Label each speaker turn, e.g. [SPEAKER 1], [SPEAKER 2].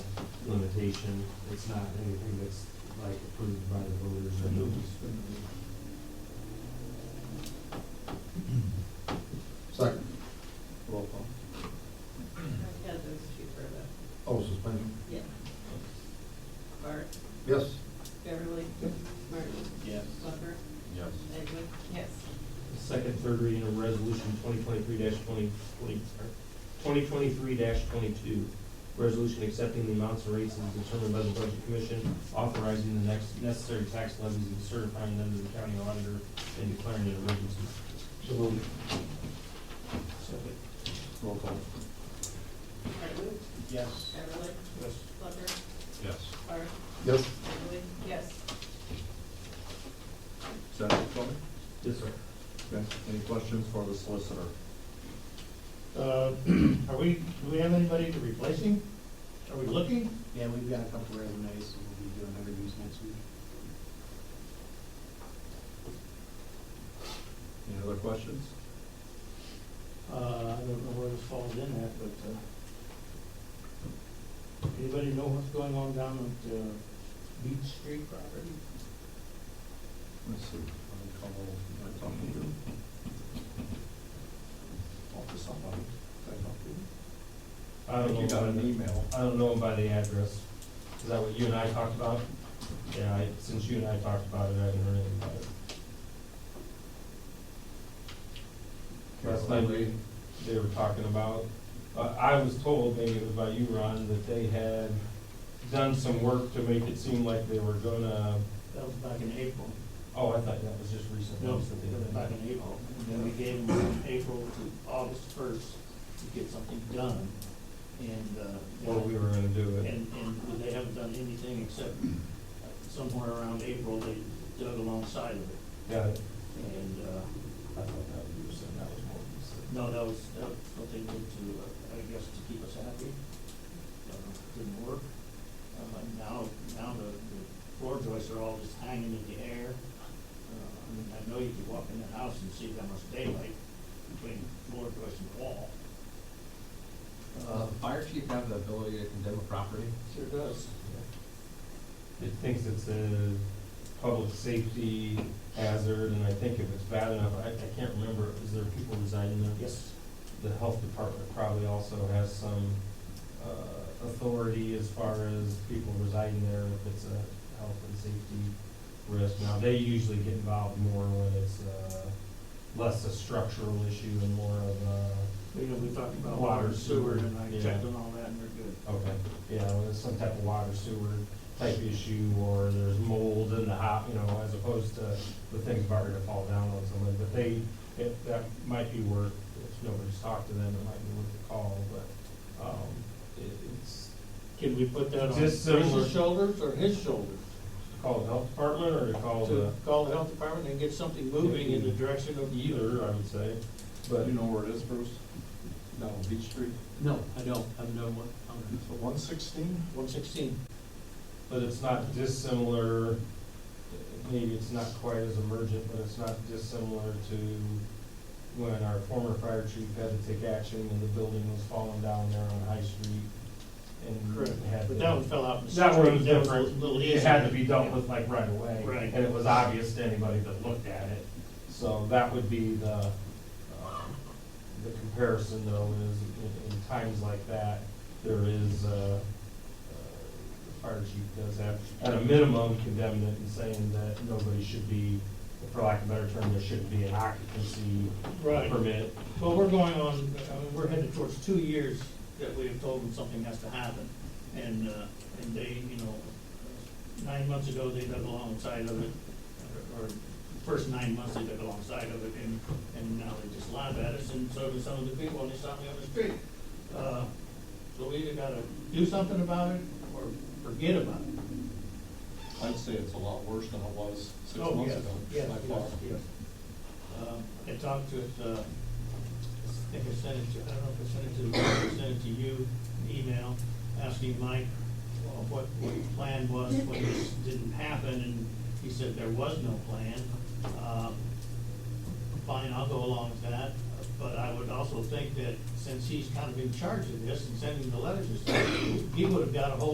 [SPEAKER 1] limitation. It's not anything that's like approved by the voters or
[SPEAKER 2] Second.
[SPEAKER 3] Roll call.
[SPEAKER 4] Yeah, those two for the,
[SPEAKER 2] Oh, suspension.
[SPEAKER 4] yeah. Bart,
[SPEAKER 2] Yes.
[SPEAKER 4] Beverly, Martin,
[SPEAKER 3] Yes.
[SPEAKER 4] Flucker,
[SPEAKER 2] Yes.
[SPEAKER 4] Edwin. Yes.
[SPEAKER 1] Second, third reading of resolution twenty twenty-three twenty, twenty, twenty twenty-three twenty-two. Resolution accepting the amounts and rates as determined by the budget commission, authorizing the next necessary tax levies and certifying them to the county auditor and declaring an emergency.
[SPEAKER 2] So moved.
[SPEAKER 1] Second.
[SPEAKER 3] Roll call.
[SPEAKER 4] Martin,
[SPEAKER 3] Yes.
[SPEAKER 4] Beverly,
[SPEAKER 1] Yes.
[SPEAKER 4] Flucker,
[SPEAKER 2] Yes.
[SPEAKER 4] Bart,
[SPEAKER 2] Yes.
[SPEAKER 4] Edwin. Yes.
[SPEAKER 3] Is that it, Tony?
[SPEAKER 1] Yes, sir.
[SPEAKER 3] Okay. Any questions for the solicitor?
[SPEAKER 5] Uh, Are we, do we have anybody to replace him? Are we looking?
[SPEAKER 6] Yeah, we've got a couple resumes, and we'll be doing interviews next week.
[SPEAKER 3] Any other questions?
[SPEAKER 5] Uh, I don't know where this falls in at, but uh, anybody know what's going on down at uh, Beach Street property?
[SPEAKER 3] Let's see. I'll call, I talk to you. Talk to somebody. Did I talk to you?
[SPEAKER 1] I don't know.
[SPEAKER 3] think you got
[SPEAKER 1] about
[SPEAKER 3] an
[SPEAKER 1] it.
[SPEAKER 3] email.
[SPEAKER 1] I don't know by the address. Is that what you and I talked about? Yeah, I, since you and I talked about it, I haven't heard anything about it. Last night, we- they were talking about, uh, I was told, maybe it was by you, Ron, that they had done some work to make it seem like they were gonna,
[SPEAKER 5] That was back in April.
[SPEAKER 1] oh, I thought that was just recent
[SPEAKER 5] No,
[SPEAKER 1] notes that
[SPEAKER 5] that was
[SPEAKER 1] they
[SPEAKER 5] back
[SPEAKER 1] did.
[SPEAKER 5] in April. And then we gave them from April to August first to get something done. And, uh,
[SPEAKER 1] Or we were gonna do it.
[SPEAKER 5] and, and they haven't done anything except somewhere around April, they dug alongside of it.
[SPEAKER 1] Got it.
[SPEAKER 5] And, uh,
[SPEAKER 1] I thought that was, you were saying that was more recent.
[SPEAKER 5] no, that was, that was what they did to, uh, I guess, to keep us happy. Uh, Didn't work. Uh, and now, now the, the floor joists are all just hanging in the air. Uh, I mean, I know you could walk in the house and see how much daylight between floor joist and wall.
[SPEAKER 6] Uh, fire chief have the ability to condemn a property?
[SPEAKER 5] Sure does.
[SPEAKER 1] It thinks it's a public safety hazard, and I think if it's bad enough, I, I can't remember, is there people resigning there?
[SPEAKER 5] Yes,
[SPEAKER 1] The health department probably also has some, uh, authority as far as people residing there, if it's a health and safety risk. Now, they usually get involved more when it's, uh, less a structural issue and more of a,
[SPEAKER 5] you know, we talked about
[SPEAKER 1] Water,
[SPEAKER 5] water, sewer, and I
[SPEAKER 1] yeah.
[SPEAKER 5] checked on all that, and they're good.
[SPEAKER 1] okay, yeah, when it's some type of water sewer type issue, or there's mold in the hop, you know, as opposed to the things about to fall down on someone, but they, it, that might be worth, if nobody's talked to them, it might be worth a call, but, um, it, it's
[SPEAKER 5] Can we put that on
[SPEAKER 1] Just similar-
[SPEAKER 5] Chris's shoulders or his shoulders?
[SPEAKER 1] call the health department or to call
[SPEAKER 5] To
[SPEAKER 1] the,
[SPEAKER 5] call the health department and get something moving in the direction of the
[SPEAKER 1] either, I would say, but.
[SPEAKER 3] You know where it is, Bruce? No, Beach Street.
[SPEAKER 6] No, I don't, I've known what,
[SPEAKER 3] So one sixteen?
[SPEAKER 5] one sixteen.
[SPEAKER 1] But it's not dissimilar, maybe it's not quite as emergent, but it's not dissimilar to when our former fire chief had to take action when the building was falling down there on High Street and
[SPEAKER 5] Correct,
[SPEAKER 1] had.
[SPEAKER 5] but
[SPEAKER 1] to-
[SPEAKER 5] that one fell out in the.
[SPEAKER 1] That one was
[SPEAKER 5] street. a
[SPEAKER 1] different.
[SPEAKER 5] Little easy.
[SPEAKER 1] It had to be dealt with like right away.
[SPEAKER 5] Right.
[SPEAKER 1] And it was obvious to anybody that looked at it. So that would be the, uh, the comparison though is in, in times like that, there is, uh, uh, the fire chief does have, at a minimum condemned it and saying that nobody should be, for lack of a better term, there shouldn't be an occupancy
[SPEAKER 5] Right,
[SPEAKER 1] permit.
[SPEAKER 5] well, we're going on, I mean, we're headed towards two years that we have told them something has to happen. And, uh, and they, you know, nine months ago, they dug alongside of it, or or first nine months they dug alongside of it, and, and now they just laugh at us, and so do some of the people, when they stop me on the street. Uh, So we either gotta do something about it, or forget about it.
[SPEAKER 3] I'd say it's a lot worse than it was six
[SPEAKER 5] Oh,
[SPEAKER 3] months
[SPEAKER 5] yes,
[SPEAKER 3] ago.
[SPEAKER 5] yes,
[SPEAKER 3] by far.
[SPEAKER 5] yes, yes. Um, I talked to, it, uh, I think I sent it to, I don't know if I sent it to, the board, I sent it to you, an email, asking Mike uh, what, what the plan was, when this didn't happen, and he said there was no plan. Um, Fine, I'll go along with that, but I would also think that since he's kind of in charge of this and sending the letters and stuff, he would have got a hold